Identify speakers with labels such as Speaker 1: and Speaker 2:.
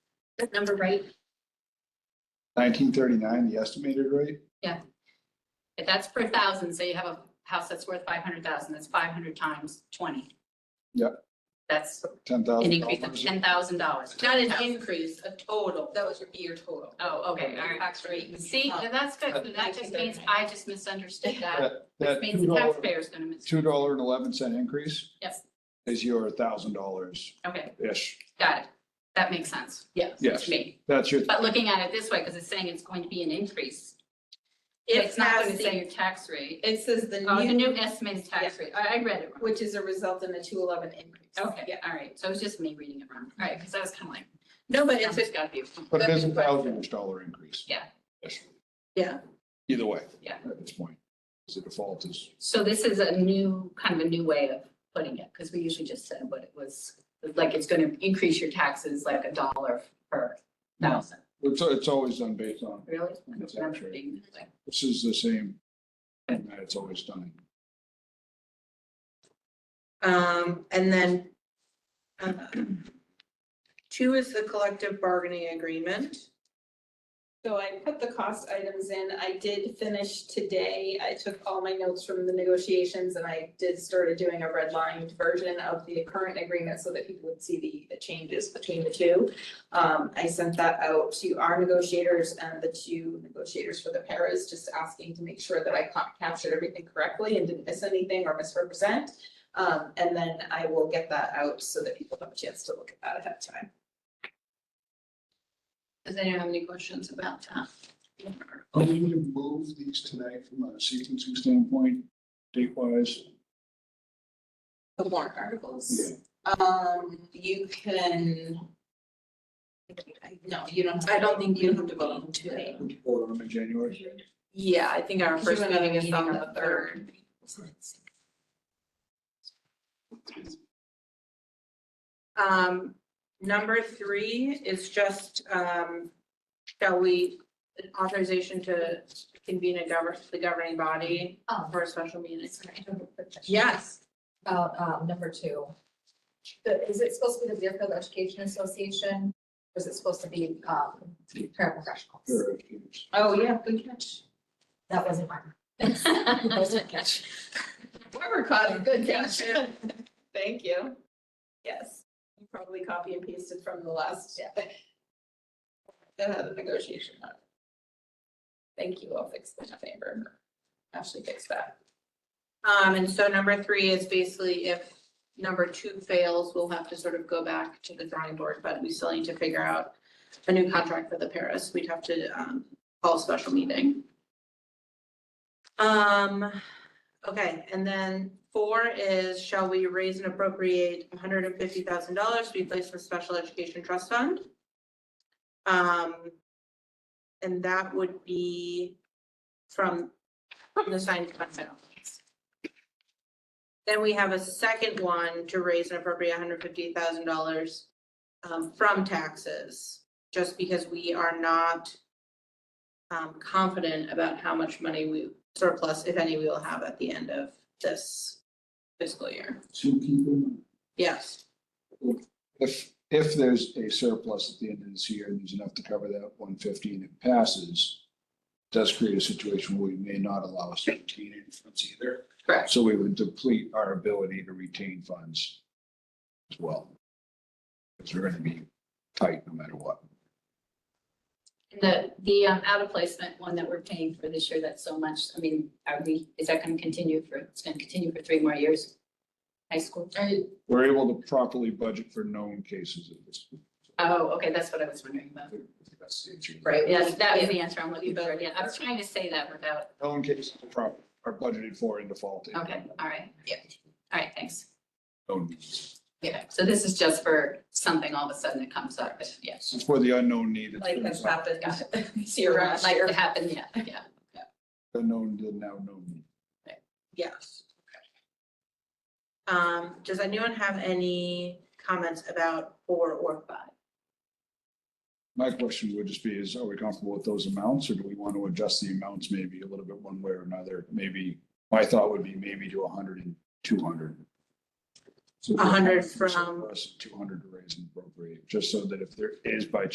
Speaker 1: number right?
Speaker 2: Nineteen thirty-nine, the estimated rate?
Speaker 1: If that's per thousand, say you have a house that's worth five hundred thousand, that's five hundred times twenty.
Speaker 2: Yeah.
Speaker 1: That's
Speaker 2: Ten thousand
Speaker 1: an
Speaker 2: dollars.
Speaker 1: increase of ten thousand dollars.
Speaker 3: Not an increase, a total. That was your year total.
Speaker 1: Oh, okay, all right.
Speaker 3: Tax rate.
Speaker 1: See, now that's good. That just means I just misunderstood that. Which
Speaker 2: That
Speaker 1: means the
Speaker 2: two dollar,
Speaker 1: taxpayer's gonna miss.
Speaker 2: two dollar and eleven cent increase?
Speaker 1: Yes.
Speaker 2: Is your thousand dollars
Speaker 1: Okay,
Speaker 2: ish.
Speaker 1: got it. That makes sense
Speaker 3: Yes.
Speaker 1: to
Speaker 2: Yes,
Speaker 1: me.
Speaker 2: that's your,
Speaker 1: But looking at it this way, because it's saying it's going to be an increase. But
Speaker 3: It
Speaker 1: It's not
Speaker 3: has
Speaker 1: going to say
Speaker 3: the,
Speaker 1: your tax rate.
Speaker 3: it says the
Speaker 1: Oh, the
Speaker 3: new,
Speaker 1: new estimated tax rate. I, I read it wrong.
Speaker 3: which is a result in the two eleven increase.
Speaker 1: Okay,
Speaker 3: Yeah.
Speaker 1: all right. So it was just me reading it wrong. All right, because I was kind of like, "Oh,
Speaker 3: No, but it's,
Speaker 1: it's got to be.
Speaker 2: but it is a
Speaker 3: That's right.
Speaker 2: thousand dollar increase.
Speaker 1: Yeah.
Speaker 2: Yes.
Speaker 3: Yeah.
Speaker 2: Either way.
Speaker 1: Yeah.
Speaker 2: At this point, 'cause the default is,
Speaker 1: So this is a new, kind of a new way of putting it, because we usually just said what it was, like it's going to increase your taxes like a dollar per thousand.
Speaker 2: it's, it's always done based on,
Speaker 1: Really? I
Speaker 2: That's
Speaker 1: don't remember
Speaker 2: actually-
Speaker 1: being this way.
Speaker 2: this is the same. And that it's always done.
Speaker 3: um, and then uh, two is the collective bargaining agreement.
Speaker 4: So I put the cost items in. I did finish today. I took all my notes from the negotiations and I did started doing a redlined version of the current agreement so that people would see the, the changes between the two. Um, I sent that out to our negotiators and the two negotiators for the paras, just asking to make sure that I ca- captured everything correctly and didn't miss anything or misrepresent. Um, and then I will get that out so that people have a chance to look at that ahead of time.
Speaker 1: Does anyone have any questions about that?
Speaker 2: Are we going to move these tonight from a sequencing standpoint, date wise?
Speaker 3: The warrant articles. Um, you can. No, you don't. I don't think you have to vote on today.
Speaker 2: Vote on them in January?
Speaker 3: Yeah, I think our
Speaker 1: first meeting is on the
Speaker 3: third. Um, number three is just, um, shall we authorization to convene a govern, the governing body
Speaker 5: Oh.
Speaker 3: for a special meeting?
Speaker 5: Sorry, I have a quick question
Speaker 3: Yes.
Speaker 5: About um number two. The- is it supposed to be the Deerfield Education Association? Or is it supposed to be um paraprofessionals?
Speaker 2: Or if it's-
Speaker 3: Oh, yeah, good catch.
Speaker 5: That wasn't mine.
Speaker 3: Whoever caught it, good catch.
Speaker 4: Thank you. Yes, you probably copy and pasted from the last. Uh, negotiation. on it. Thank you. I'll fix the favor. Ashley fixed that.
Speaker 3: Um, and so number three is basically if number two fails, we'll have to sort of go back to the drawing board, but we still need to figure out a new contract for the Paris. We'd have to, um, call a special meeting. Um, okay, and then four is shall we raise and appropriate hundred and fifty thousand dollars to be placed in the special education trust fund? Um, and that would be from the signed fund balance. Then we have a second one to raise and appropriate hundred fifty thousand dollars um, from taxes, just because we are not um, confident about how much money we surplus, if any, we will have at the end of this fiscal year.
Speaker 2: Two people.
Speaker 3: Yes,
Speaker 2: If, if there's a surplus at the end of this year and there's enough to cover that one fifty and it passes, does create a situation where we may not allow us to retain any funds either.
Speaker 3: Correct.
Speaker 2: So we would deplete our ability to retain funds as well. Because we're going to be tight no matter what.
Speaker 1: The, the um, out of placement one that we're paying for this year, that's so much, I mean, are we, is that going to continue for, it's going to continue for three more years? High school?
Speaker 2: We're able to properly budget for known cases of this.
Speaker 1: Oh, okay, that's what I was wondering about.
Speaker 2: That's the issue.
Speaker 3: right.
Speaker 1: Yes, that was
Speaker 3: Yeah.
Speaker 1: the answer I'm looking for. Yeah, I was trying to say that without,
Speaker 2: Known cases are prop- are budgeted for and defaulted.
Speaker 1: okay, all right.
Speaker 3: Yeah.
Speaker 1: All right, thanks.
Speaker 2: Known-
Speaker 1: Yeah, so this is just for something all of a sudden that comes up, but yes.
Speaker 2: It's for the unknown need. it's
Speaker 4: Like
Speaker 2: been
Speaker 4: that's happened.
Speaker 1: Got
Speaker 4: this year
Speaker 1: Like
Speaker 4: last year.
Speaker 1: it happened, yeah, yeah.
Speaker 2: Unknown, to now known need.
Speaker 3: Yes. Um, does anyone have any comments about four or five?
Speaker 2: My question would just be is, are we comfortable with those amounts or do we want to adjust the amounts maybe a little bit one way or another? Maybe, my thought would be maybe to 100 and 200. So if
Speaker 3: 100
Speaker 2: there's
Speaker 3: from-
Speaker 2: surplus, 200 to raise and appropriate, just so that if there is by